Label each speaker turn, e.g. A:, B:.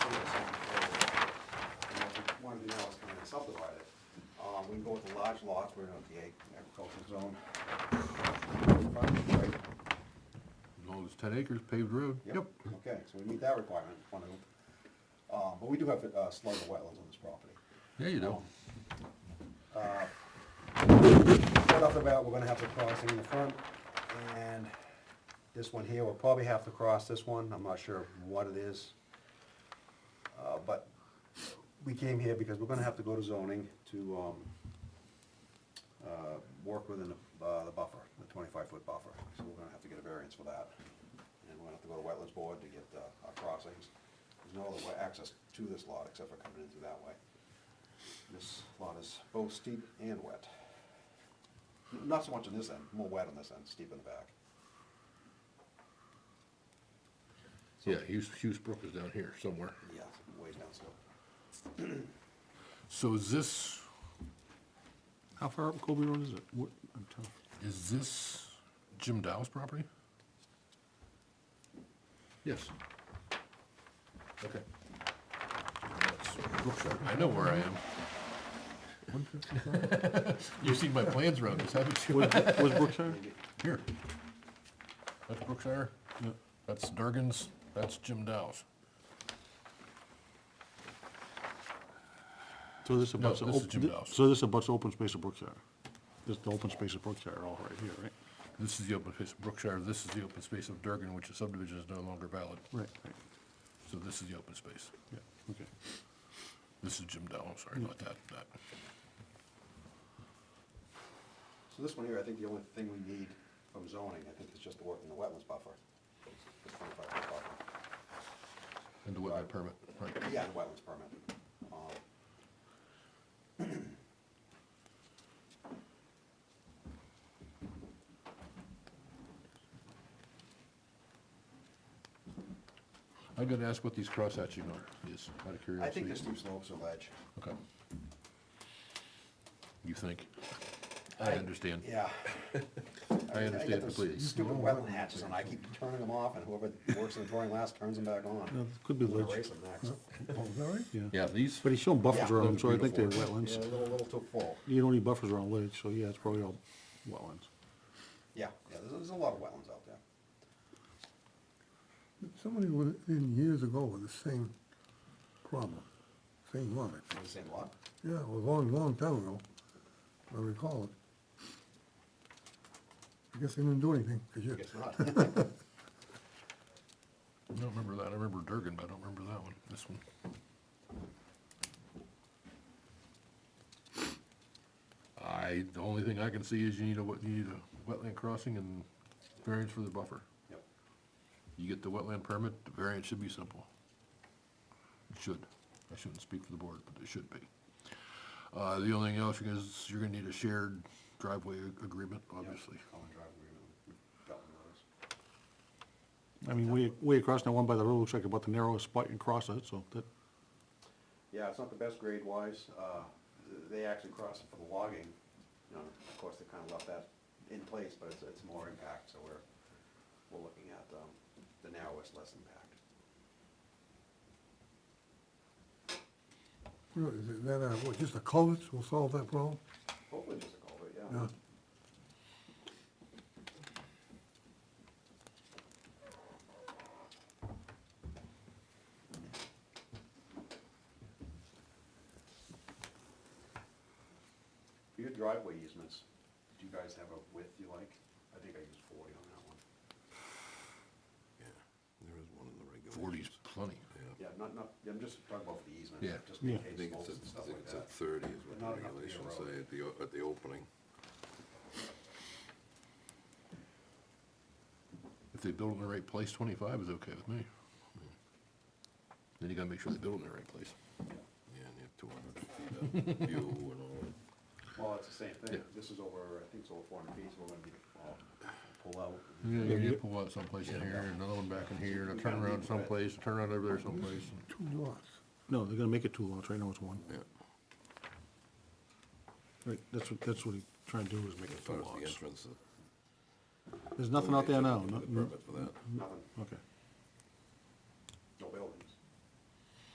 A: Um, we can go with the large lots, we're not the ag- agricultural zone. Fine, right?
B: As long as ten acres paved road, yep.
A: Okay, so we meet that requirement, one of them. Uh, but we do have, uh, slug of wetlands on this property.
B: Yeah, you do.
A: Right off the bat, we're gonna have to cross in the front, and this one here, we'll probably have to cross this one, I'm not sure what it is. Uh, but we came here because we're gonna have to go to zoning to, um, uh, work within the, uh, the buffer, the twenty-five foot buffer, so we're gonna have to get a variance for that. And we're gonna have to go to wetlands board to get, uh, our crossings, there's no other way, access to this lot except for coming in through that way. This lot is both steep and wet. N- Not so much on this end, more wet on this end, steep in the back.
B: Yeah, Hughes, Hughes Brook is down here somewhere.
A: Yeah, it's way down slope.
B: So is this,
C: How far up Colby Road is it? What, I'm tough.
B: is this Jim Dow's property? Yes. Okay. That's Brookshire. I know where I am. You've seen my plans around this, haven't you?
C: Was, was Brookshire?
B: Here. That's Brookshire,
C: Yeah.
B: that's Durgan's, that's Jim Dow's.
C: So this
B: No,
C: abuts, the
B: this is
C: op-
B: Jim
C: thi-
B: Dawes.
C: so this abuts the open space of Brookshire. This, the open space of Brookshire all right here, right?
B: This is the open space of Brookshire, this is the open space of Durgan, which the subdivision is no longer valid.
C: Right, right,
B: So this is the open space.
C: yeah, okay.
B: This is Jim Dow, I'm sorry about that, that.
A: So this one here, I think the only thing we need from zoning, I think, is just the work in the wetlands buffer. The 25 foot buffer.
B: And the wetland permit, right.
A: Yeah, the wetlands permit. Um,
B: I'm gonna ask what these crosshatching are, is, out of
A: I
B: curiosity.
A: think the steep slopes are ledge.
B: Okay. You think? I understand.
A: Yeah.
B: I
A: mean, get
B: understand
A: those
B: completely.
A: Stupid wetland hatches, and I keep turning them off, and whoever works in the drawing last turns them back on.
C: No, this could be
A: I'm gonna
C: ledge.
A: Erase them next.
B: Yeah, these,
C: But he's showing buffers
A: Yeah.
C: around, them, so I think they're
A: Yeah, a
C: wetlands.
A: little, little too full.
C: You don't need buffers around ledge, so yeah, it's probably all wetlands.
A: Yeah, yeah, there's, there's a lot of wetlands out there.
D: Somebody went in years ago with the same problem, same one.
A: Is it the same lot?
D: Yeah, it was a long, long time ago, I recall it. I guess they didn't do anything, 'cause
A: I
D: you,
A: guess not.
B: I don't remember that, I remember Durgan, but I don't remember that one, this one. I, the only thing I can see is you need a, wet- you need a wetland crossing and variance for the buffer.
A: Yep.
B: You get the wetland permit, the variance should be simple. It should. I shouldn't speak for the board, but it should be. Uh, the only thing else is you're gonna need a shared driveway ag- agreement, obviously.
A: Common driveway, we got one of those.
C: I mean, way, way across that one by the road looks like about the narrowest spot you can cross it, so that,
A: Yeah, it's not the best grade wise, uh, th- they actually crossed it for the logging, you know, of course, they kinda left that in place, but it's, it's more impact, so we're, we're looking at, um, the narrowest, less impact.
D: Really, is it that, uh, what, just the culverts will solve that problem?
A: Hopefully just a culvert, yeah.
D: Yeah.
A: For your driveway easements, do you guys have a width you like? I think I used forty on that one.
E: There is one in the regulations.
B: Forty's plenty.
A: Yeah, not, not, I'm just talking about for the easement,
B: Yeah.
A: just in
C: Yeah.
E: I
A: case
E: think it's
A: slopes
E: at,
A: and stuff
E: I think
A: like
E: it's
A: that.
E: at thirty is what
A: Not
E: the
A: enough to be a
E: regulations
A: road.
E: say at the, o- at the opening.
B: If they build in the right place, twenty-five is okay with me. Then you gotta make sure they build in the right place.
E: Yeah, and you have two hundred feet of view and all that.
A: Well, it's the same thing,
B: Yeah.
A: this is over, I think it's over four hundred feet, so we're gonna be, well, pull out.
B: Yeah,
C: Yeah,
B: you
C: you-
B: need to pull out someplace in here, and another one back in here, and a
A: We gotta leave
B: turnaround
A: it.
B: someplace, a turnaround over there someplace. and-
D: Two lots.
C: no, they're gonna make it two lots, right now it's one.
E: Yeah,
C: Right, that's what, that's what he's trying to do is make
E: as
C: it
E: far
C: two
E: as the
C: lots.
E: entrance. uh,
C: There's nothing out there
E: they
C: now,
E: took
C: no,
E: the
C: no,
E: Permit for that.
A: Nothing,
C: okay.
A: no building.